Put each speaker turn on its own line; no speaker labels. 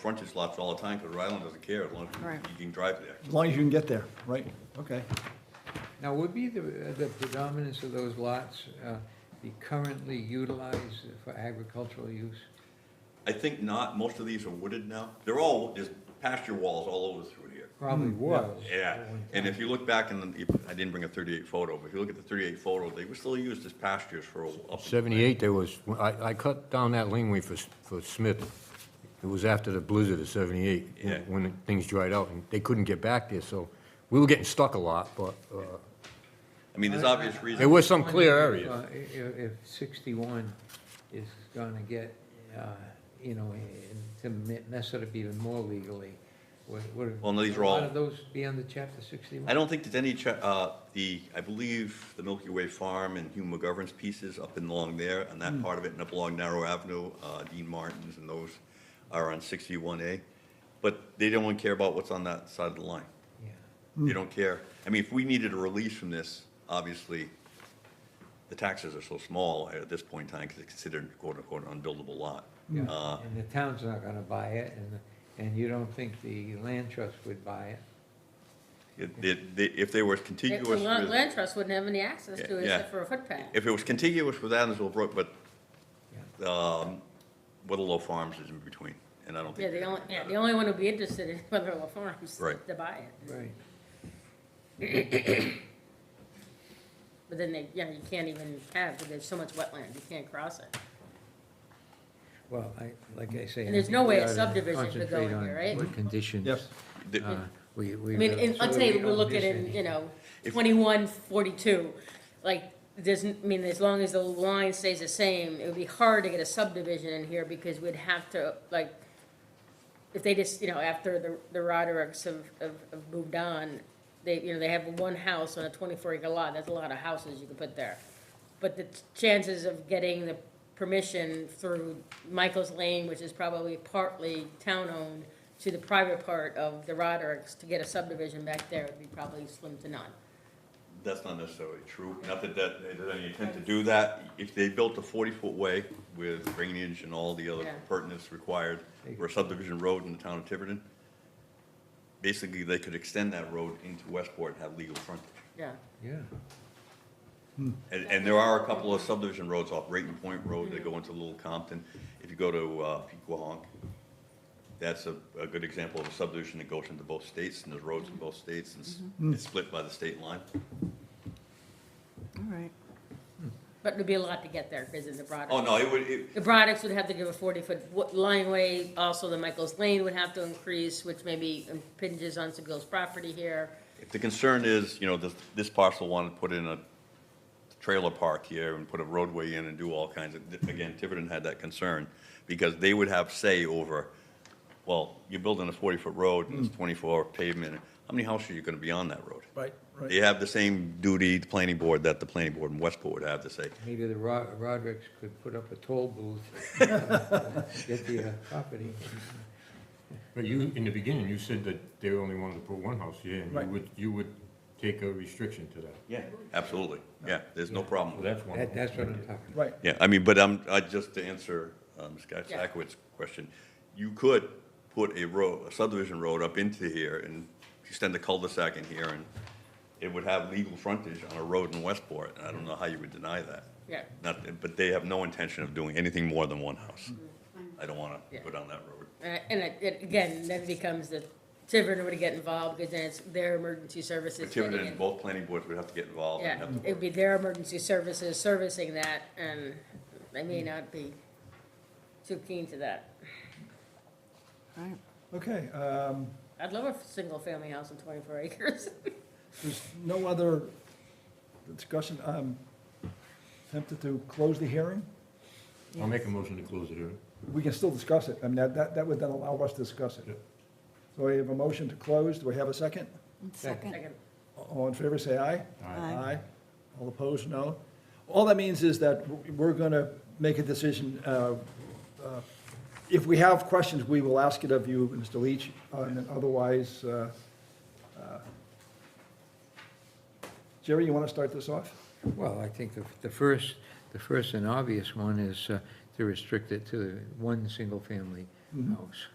frontage lots all the time, because Rhode Island doesn't care, as long as
Right.
you can drive there.
As long as you can get there, right? Okay.
Now, would be the, the predominance of those lots uh, be currently utilized for agricultural use?
I think not, most of these are wooded now, they're all, there's pasture walls all over through here.
Probably
Hmm.
was.
Yeah, and if you look back in, the- I didn't bring a thirty-eight photo, but if you look at the thirty-eight photo, they were still used as pastures for, a- up-
78, there was, I, I cut down that laneway for, for Smith. It was after the blizzard of 78, when-
Yeah.
when things dried out, and they couldn't get back there, so we were getting stuck a lot, but, uh,
I mean, there's obvious reasons.
There was some clear
Wondering if,
areas.
uh, i- If sixty-one is gonna get, uh, you know, in- to me- mess it up even more legally, would, would.
Well, no, these are
A lot
all-
of those be under chapter sixty-one?
I don't think there's any, cha- uh, the, I believe, the Milky Way Farm and Hugh McGovern's pieces up and along there, and that part of it, and up along Narrow Avenue, uh, Dean Martin's and those are on sixty-one A. But they don't care about what's on that side of the line.
Yeah.
They don't care. I mean, if we needed a release from this, obviously, the taxes are so small at this point in time, because it's considered quote-unquote unbuildable lot. Uh,
Yeah, And the town's not gonna buy it, and, and you don't think the land trust would buy it?
it- it- they- If they were
It-
contiguous
The
with.
land land trust wouldn't have any access to it
Yeah.
except for a footpath.
If it was contiguous with Adamsville Brook, but, um, Whittlelow Farms is in between, and I don't
Yeah,
think.
the only, yeah, the only one who'd be interested in Weatherall Farms
Right.
to buy it.
Right.
But then they, yeah, you can't even have, because there's so much wetland, you can't cross it.
Well, I, like I say.
And there's no way a
we oughta
subdivision could go
concentrate
in
on
here, right?
What conditions.
Yep.
The-
uh, We, we.
I mean, and let's say we're looking in, you know, twenty-one forty-two, like, there's, n- I mean, as long as the line stays the same, it would be hard to get a subdivision in here because we'd have to, like, if they just, you know, after the, the Rodericks have, have, have moved on, they, you know, they have one house on a twenty-four acre lot, that's a lot of houses you could put there. But the chances of getting the permission through Michael's Lane, which is probably partly town-owned, to the private part of the Rodericks to get a subdivision back there would be probably slim to none.
That's not necessarily true, not that that, there's any intent to do that. If they built a forty-foot way with drainage and all the other
Yeah.
pertinence required for a subdivision road in the town of Tiverton, basically, they could extend that road into Westport and have legal frontage.
Yeah,
Yeah,
And, and there are a couple of subdivision roads off Rayton Point Road that go into Little Compton. If you go to, uh, Pequahawk, that's a, a good example of a subdivision that goes into both states, and there's roads in both states, and it's- it's split by the state line.
All right.
but it'd be a lot to get there because of the Rodericks.
Oh, no, it would, it,
The Broaddicks would have to give a forty-foot lineway, also the Michael's Lane would have to increase, which maybe impinges on some people's property here.
if the concern is, you know, this, this parcel wanted to put in a trailer park here and put a roadway in and do all kinds of, again, Tiverton had that concern, because they would have say over, well, you're building a forty-foot road and it's twenty-four pavement, how many houses are you gonna be on that road?
Right,
They
right.
have the same duty, the planning board, that the planning board in Westport would have to say.
maybe the Ro- Rodericks could put up a toll booth. Get the uh, property.
but you, in the beginning, you said that they only wanted to put one house here, and you
Right.
would, you would take a restriction to that.
Yeah. Absolutely, yeah, there's no problem
So
with that.
that's one.
That, that's what I'm talking about.
Right.
Yeah, I mean, but I'm, I, just to answer, um, Scott
Yeah.
Sakowitz's question, you could put a road, a subdivision road up into here and extend the cul-de-sac in here, and it would have legal frontage on a road in Westport, and I don't know how you would deny that.
Yeah.
Not, but they have no intention of doing anything more than one house. I don't wanna
Mm-hmm. Yeah.
go down that road.
Uh, And it- it, again, then becomes the, Tiverton would get involved because then it's their emergency services getting
Tiverton,
in.
both planning boards would have to get involved and
Yeah,
have to
it'd be their emergency services servicing that and they may not be too keen to that.
All right.
Okay, um,
I'd love a single-family house in twenty-four acres.
there's no other discussion. I'm tempted to close the hearing.
I'll make a motion to close it, hearing.
We can still discuss it. I mean, that, that that would then allow us to discuss it.
Yeah.
So we have a motion to close. Do we have a second?
And Second.
Second.
All in favor, say aye.
Aye.
All opposed, no. All that means is that we're going to make a decision. uh, uh, If we have questions, we will ask it of you, Mr. Leach, uh, and otherwise, uh, uh, Jerry, you want to start this off?
Well, I think the, the first, the
Mm-hmm.
first and obvious one is uh, to restrict it to one single-family house.